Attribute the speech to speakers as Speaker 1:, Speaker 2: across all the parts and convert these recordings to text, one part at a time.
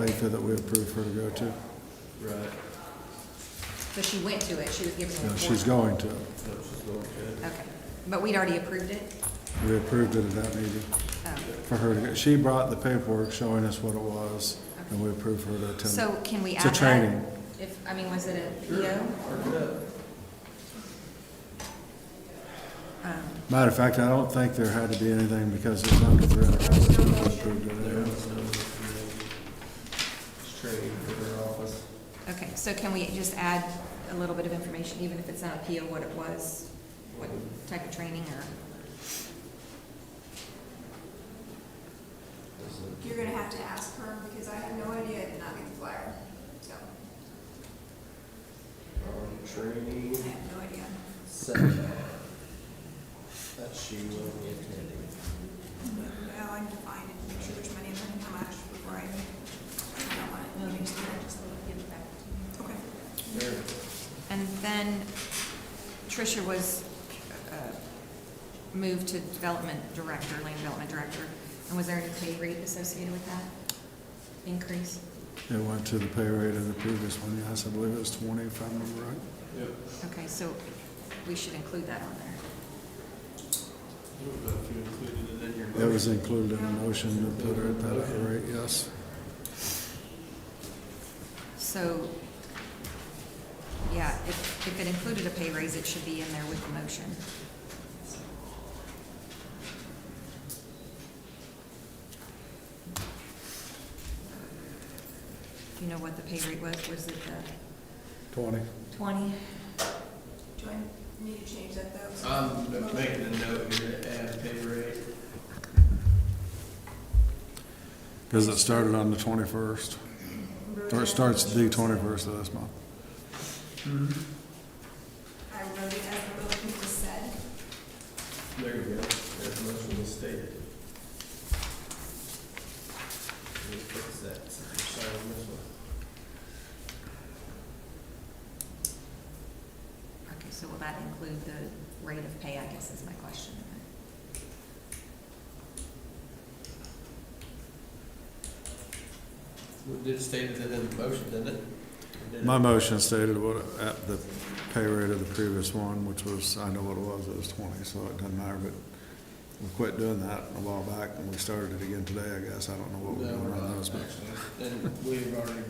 Speaker 1: Jessica that we approved her to go to?
Speaker 2: Right,
Speaker 3: So she went to it, she was given a
Speaker 1: No,
Speaker 3: report.
Speaker 1: she's going to.
Speaker 2: so it's just going to.
Speaker 3: Okay, but we'd already approved it?
Speaker 1: We approved it at that meeting
Speaker 3: Oh.
Speaker 1: for her to go. She brought the paperwork showing us what it was, and we approved her to attend.
Speaker 3: Oh. So can we
Speaker 1: It's
Speaker 3: add
Speaker 1: a
Speaker 3: that?
Speaker 1: training.
Speaker 3: If, I mean, was it a PO?
Speaker 2: Mark it up.
Speaker 1: Matter of fact, I don't think there had to be anything because it's under three hundred hours. We approved it
Speaker 2: There
Speaker 1: anyway.
Speaker 2: was no, it's training for her office.
Speaker 3: Okay, so can we just add a little bit of information, even if it's not a PO, what it was, what type of training or?
Speaker 4: You're gonna have to ask her, because I have no idea, I did not get the flyer, so,
Speaker 2: Um, Training
Speaker 4: I have no idea.
Speaker 2: seminar that she will be attending.
Speaker 4: No, I need to find it, make sure there's money in there, and how much before I, I don't want it, Just- just- okay.
Speaker 2: There,
Speaker 3: And then Tricia was uh, moved to development director, land development director, and was there any pay rate associated with that increase?
Speaker 1: It went to the pay rate of the previous one, yes, I believe it was twenty, if I remember right.
Speaker 2: yep.
Speaker 3: Okay, so we should include that on there.
Speaker 2: I don't know if you included it in your.
Speaker 1: That was included in the motion to put her at that rate, yes.
Speaker 3: So, yeah, if, if it included a pay raise, it should be in there with the motion. Do you know what the pay rate was? Was it the
Speaker 1: Twenty.
Speaker 3: twenty?
Speaker 4: Do I need to change that though?
Speaker 2: Uh, I'm making a note here to add pay rate.
Speaker 1: Because it started on the twenty-first, or it starts the twenty-first of this month.
Speaker 4: I wrote it as the little you just said,
Speaker 2: There you go, as much as stated. Let me fix that, since you're signing this one.
Speaker 3: Okay, so will that include the rate of pay, I guess is my question.
Speaker 2: Well, It stated it in the motion, didn't it? Or did it?
Speaker 1: My motion stated what, at the pay rate of the previous one, which was, I know what it was, it was twenty, so it doesn't matter, but we quit doing that a while back, and we started it again today, I guess, I don't know what we're
Speaker 2: No,
Speaker 1: doing
Speaker 2: we're
Speaker 1: on
Speaker 2: not,
Speaker 1: those, but.
Speaker 2: actually. And we've already,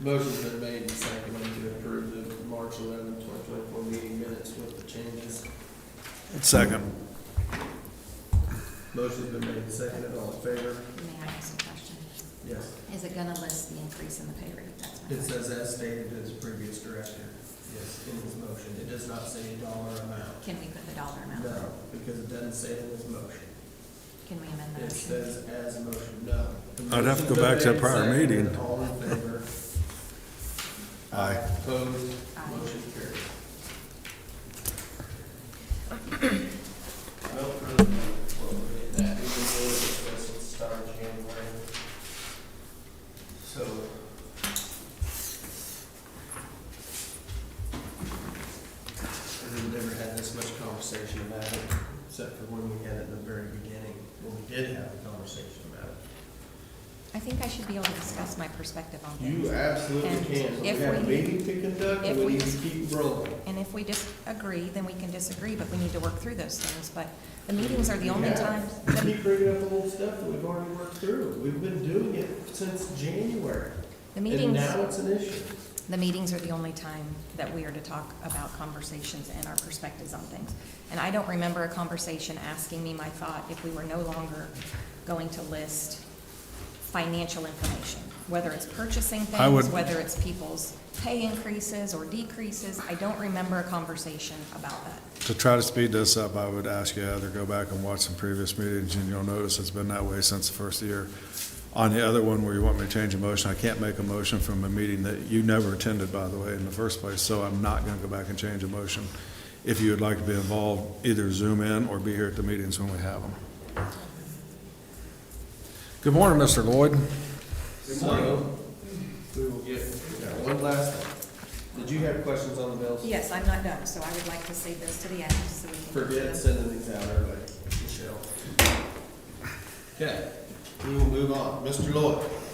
Speaker 2: motion's been made and seconded to approve the March eleventh, twenty twenty-four meeting minutes with the changes.
Speaker 1: Second.
Speaker 2: Motion's been made and seconded, all in favor?
Speaker 3: May I ask a question?
Speaker 2: Yes.
Speaker 3: Is it gonna list the increase in the pay rate? That's my
Speaker 2: It
Speaker 3: question.
Speaker 2: says as stated in his previous director, yes, in his motion. It does not say a dollar amount.
Speaker 3: Can we put the dollar amount?
Speaker 2: No, because it doesn't say it in his motion.
Speaker 3: Can we amend the
Speaker 2: It
Speaker 3: motion?
Speaker 2: says as motion, no. The
Speaker 1: I'd have to
Speaker 2: motion's
Speaker 1: go back to
Speaker 2: been
Speaker 1: that
Speaker 2: made and
Speaker 1: prior
Speaker 2: seconded.
Speaker 1: meeting.
Speaker 2: All in favor?
Speaker 1: Aye.
Speaker 2: Opposed?
Speaker 3: Aye.
Speaker 2: Motion carried. Well, for the, well, that is the way this was to start January. So. We've never had this much conversation about it, except for when we had it in the very beginning, when we did have a conversation about it.
Speaker 3: I think I should be able to discuss my perspective on things.
Speaker 2: You absolutely
Speaker 3: And
Speaker 2: can. So We
Speaker 3: if
Speaker 2: have a
Speaker 3: we-
Speaker 2: meeting to conduct,
Speaker 3: if
Speaker 2: and we
Speaker 3: we-
Speaker 2: need to keep rolling.
Speaker 3: And if we disagree, then we can disagree, but we need to work through those things. But the meetings are the only
Speaker 2: Yeah.
Speaker 3: times, the,
Speaker 2: Keep bringing up old stuff that we've already worked through. We've been doing it since January.
Speaker 3: the
Speaker 2: And
Speaker 3: meetings,
Speaker 2: now it's an issue.
Speaker 3: the meetings are the only time that we are to talk about conversations and our perspectives on things. And I don't remember a conversation asking me my thought if we were no longer going to list financial information, whether it's purchasing
Speaker 1: I
Speaker 3: things,
Speaker 1: would-
Speaker 3: whether it's people's pay increases or decreases. I don't remember a conversation about that.
Speaker 1: To try to speed this up, I would ask you either go back and watch some previous meetings, and you'll notice it's been that way since the first year. On the other one where you want me to change a motion, I can't make a motion from a meeting that you never attended, by the way, in the first place, so I'm not gonna go back and change a motion. If you would like to be involved, either zoom in or be here at the meetings when we have them. Good morning, Mr. Lloyd.
Speaker 2: So, we will get, we got one last one. Did you have questions on the bills?
Speaker 3: Yes, I'm not done, so I would like to save those to the end, so we can.
Speaker 2: Forget sending these out early, Michelle. Okay, we will move on. Mr. Lloyd?